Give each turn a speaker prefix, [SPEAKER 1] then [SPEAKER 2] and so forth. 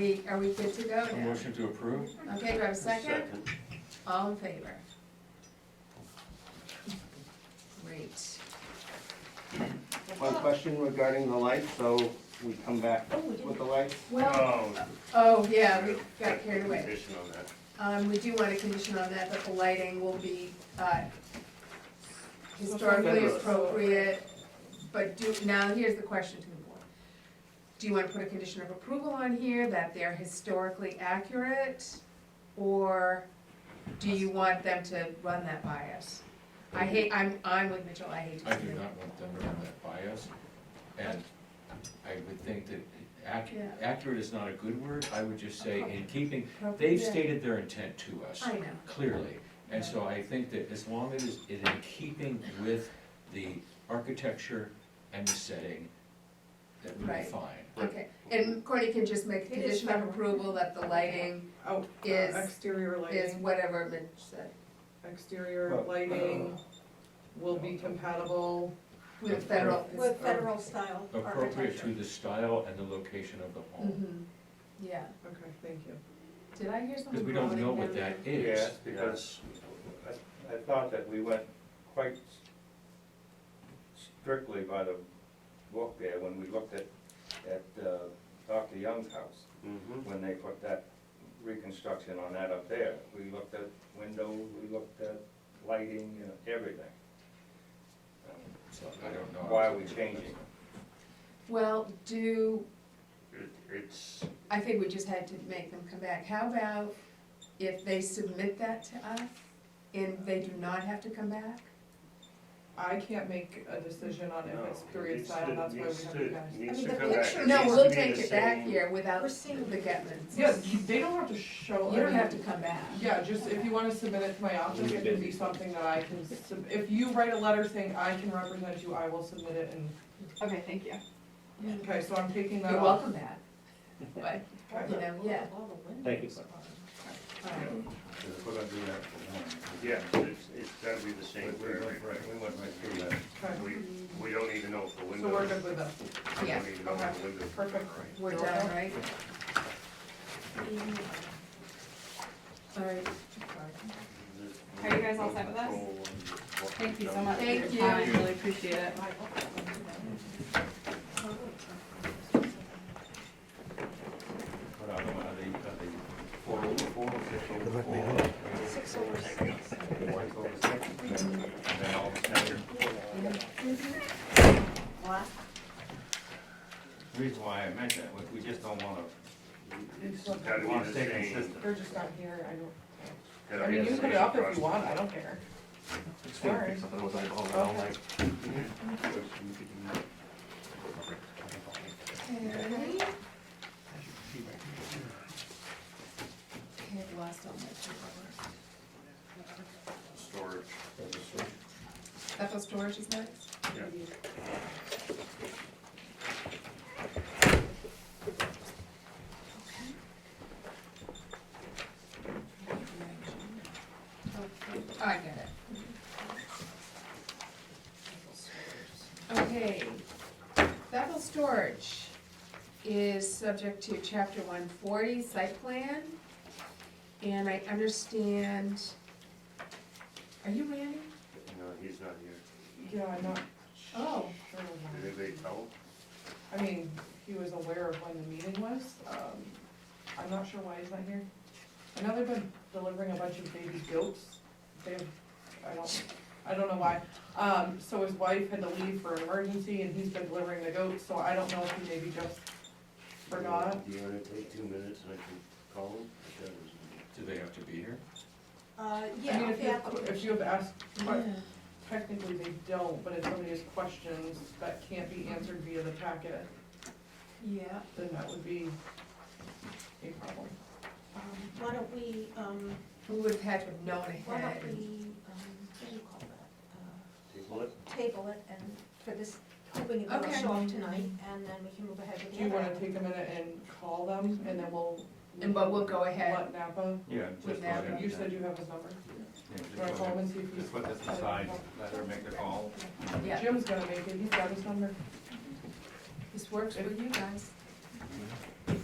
[SPEAKER 1] We, are we good to go
[SPEAKER 2] A
[SPEAKER 1] now?
[SPEAKER 2] motion to approve?
[SPEAKER 1] Okay, do I have a second? All in favor? Great.
[SPEAKER 3] One question regarding the lights, so we come back with the lights.
[SPEAKER 1] Well, oh, yeah, we got carried away. Um, we do want a condition on that, that the lighting will be, uh, historically
[SPEAKER 3] Fabulous.
[SPEAKER 1] appropriate, but do, now here's the question to the board. Do you wanna put a condition of approval on here that they're historically accurate? Or do you want them to run that by us? I hate, I'm, I'm with Mitchell, I hate
[SPEAKER 2] I
[SPEAKER 1] to
[SPEAKER 2] do
[SPEAKER 1] do that.
[SPEAKER 2] not want them to have that bias, and I would think that ac-
[SPEAKER 1] Yeah.
[SPEAKER 2] accurate is not a good word, I would just say in keeping,
[SPEAKER 1] Appropriate.
[SPEAKER 2] they've stated their intent to us,
[SPEAKER 1] I know,
[SPEAKER 2] clearly. And so I think that as long as it is in keeping with the architecture and the setting, that would be
[SPEAKER 1] Right.
[SPEAKER 2] fine.
[SPEAKER 1] okay, and Courtney can just make a
[SPEAKER 4] It is
[SPEAKER 1] condition of
[SPEAKER 4] fine.
[SPEAKER 1] approval that the lighting
[SPEAKER 4] Oh, uh,
[SPEAKER 1] Is-
[SPEAKER 4] exterior
[SPEAKER 1] is
[SPEAKER 4] lighting,
[SPEAKER 1] whatever Mitch said,
[SPEAKER 4] exterior lighting will be compatible.
[SPEAKER 1] with federal.
[SPEAKER 5] With federal style
[SPEAKER 2] Appropriate to
[SPEAKER 5] architecture.
[SPEAKER 2] the style and the location of the home,
[SPEAKER 1] Mhm. Yeah,
[SPEAKER 4] Okay, thank you.
[SPEAKER 1] did I hear something?
[SPEAKER 2] because we don't know what
[SPEAKER 1] growling
[SPEAKER 2] that
[SPEAKER 1] down
[SPEAKER 2] is.
[SPEAKER 6] Yes, because I, I thought that we went quite strictly by the book there when we looked at, at uh, Dr. Young's house, when they put that reconstruction on that up there. We looked at windows, we looked at lighting, you know, everything. Um,
[SPEAKER 2] So I don't know.
[SPEAKER 6] Why are we changing?
[SPEAKER 1] Well, do,
[SPEAKER 6] It- It's,
[SPEAKER 1] I think we just had to make them come back, how about if they submit that to us and they do not have to come back?
[SPEAKER 4] I can't make a decision on if it's
[SPEAKER 7] No,
[SPEAKER 4] period
[SPEAKER 7] it's
[SPEAKER 4] style,
[SPEAKER 7] the-
[SPEAKER 4] that's why we
[SPEAKER 7] it's
[SPEAKER 4] have
[SPEAKER 7] the-
[SPEAKER 4] to guys.
[SPEAKER 5] I
[SPEAKER 7] needs
[SPEAKER 5] mean,
[SPEAKER 7] to
[SPEAKER 5] the
[SPEAKER 7] come back.
[SPEAKER 5] picture-
[SPEAKER 7] It
[SPEAKER 1] No,
[SPEAKER 7] needs
[SPEAKER 1] we'll
[SPEAKER 7] to be
[SPEAKER 1] take
[SPEAKER 7] the
[SPEAKER 1] it back
[SPEAKER 7] same-
[SPEAKER 1] here without
[SPEAKER 5] We're
[SPEAKER 1] the
[SPEAKER 5] seeing-
[SPEAKER 1] Getmans.
[SPEAKER 4] Yeah, you- they don't have to show.
[SPEAKER 1] You don't
[SPEAKER 4] any-
[SPEAKER 1] have to come back.
[SPEAKER 4] Yeah, just if you wanna submit it to my office, it can be something that I can, sub- if you write a letter saying I can represent you, I will submit it and,
[SPEAKER 5] Okay, thank you.
[SPEAKER 4] okay, so I'm taking that
[SPEAKER 1] You're
[SPEAKER 4] off.
[SPEAKER 1] welcome back, but, you know, yeah.
[SPEAKER 3] Thank you.
[SPEAKER 1] all right.
[SPEAKER 6] we're gonna do that for one.
[SPEAKER 7] Yeah, it's, it's gotta be the
[SPEAKER 6] We
[SPEAKER 7] same
[SPEAKER 6] went
[SPEAKER 7] for every,
[SPEAKER 6] right, we went right through that.
[SPEAKER 4] Okay,
[SPEAKER 7] we, we don't even know for
[SPEAKER 4] so we're
[SPEAKER 7] windows.
[SPEAKER 4] good with that,
[SPEAKER 7] We
[SPEAKER 1] Yeah,
[SPEAKER 7] don't even know
[SPEAKER 4] okay,
[SPEAKER 7] for windows.
[SPEAKER 4] perfect.
[SPEAKER 1] We're done, right? All right.
[SPEAKER 5] Are you guys all set with us? Thank you so much. for your
[SPEAKER 1] Thank you.
[SPEAKER 5] time. Really appreciate it.
[SPEAKER 6] What are they, are they, are they four over four, six over four? Six over six. One over six? Then all of a sudden, reason why I mentioned it, was we just don't wanna,
[SPEAKER 4] It's not-
[SPEAKER 7] Gotta
[SPEAKER 6] wanna
[SPEAKER 7] be the
[SPEAKER 6] stay
[SPEAKER 7] same.
[SPEAKER 6] consistent.
[SPEAKER 4] They're just not here, I don't.
[SPEAKER 7] gotta
[SPEAKER 4] I
[SPEAKER 7] be
[SPEAKER 4] mean,
[SPEAKER 7] the
[SPEAKER 4] you put it
[SPEAKER 7] same
[SPEAKER 4] up if
[SPEAKER 7] across.
[SPEAKER 4] you want, I don't care. Sorry. Okay.
[SPEAKER 1] I have lost all my paperwork.
[SPEAKER 7] Storage.
[SPEAKER 1] Bethel Storage is next?
[SPEAKER 7] Yeah.
[SPEAKER 1] Okay, oh, I get it. Okay, Bethel Storage is subject to chapter one forty site plan. And I understand, are you Randy?
[SPEAKER 7] No, he's not here.
[SPEAKER 4] Yeah, I'm not
[SPEAKER 1] Oh,
[SPEAKER 4] sure.
[SPEAKER 7] Did anybody tell?
[SPEAKER 4] I mean, he was aware of when the meeting was, um, I'm not sure why he's not here. I know they've been delivering a bunch of baby goats, they've, I don't, I don't know why. Um, so his wife had to leave for an emergency and he's been delivering the goats, so I don't know if he maybe just forgot.
[SPEAKER 7] Do you wanna take two minutes and I can call him? That was-
[SPEAKER 2] Do they have to be here?
[SPEAKER 5] Uh,
[SPEAKER 4] I
[SPEAKER 5] yeah,
[SPEAKER 4] mean, if you,
[SPEAKER 5] yeah.
[SPEAKER 4] have- if you have asked, que- technically they don't, but if somebody has questions that can't be answered via the packet,
[SPEAKER 1] yeah.
[SPEAKER 4] then that would be a problem.
[SPEAKER 5] Um, Why don't we, um,
[SPEAKER 1] We would have had to have known
[SPEAKER 5] why
[SPEAKER 1] ahead.
[SPEAKER 5] don't we, um, what do you call that?
[SPEAKER 7] Table it?
[SPEAKER 5] Uh, Table it and for this, hoping it will
[SPEAKER 1] Okay.
[SPEAKER 5] show up tonight and then we can move ahead with
[SPEAKER 4] Do
[SPEAKER 5] the
[SPEAKER 4] you
[SPEAKER 5] other.
[SPEAKER 4] wanna take a minute and call them, and then we'll.
[SPEAKER 1] And but we'll go ahead,
[SPEAKER 4] Let Napa,
[SPEAKER 6] yeah,
[SPEAKER 1] With
[SPEAKER 6] just.
[SPEAKER 1] that,
[SPEAKER 6] let it-
[SPEAKER 4] you said you have his number,
[SPEAKER 6] yeah,
[SPEAKER 4] do
[SPEAKER 6] just
[SPEAKER 4] you wanna
[SPEAKER 6] let
[SPEAKER 4] call
[SPEAKER 6] it-
[SPEAKER 4] him and see if
[SPEAKER 6] Just put this aside, let her make the call.
[SPEAKER 1] yeah,
[SPEAKER 4] he's, Jim's gonna make it, he's got his number.
[SPEAKER 1] this works with you guys.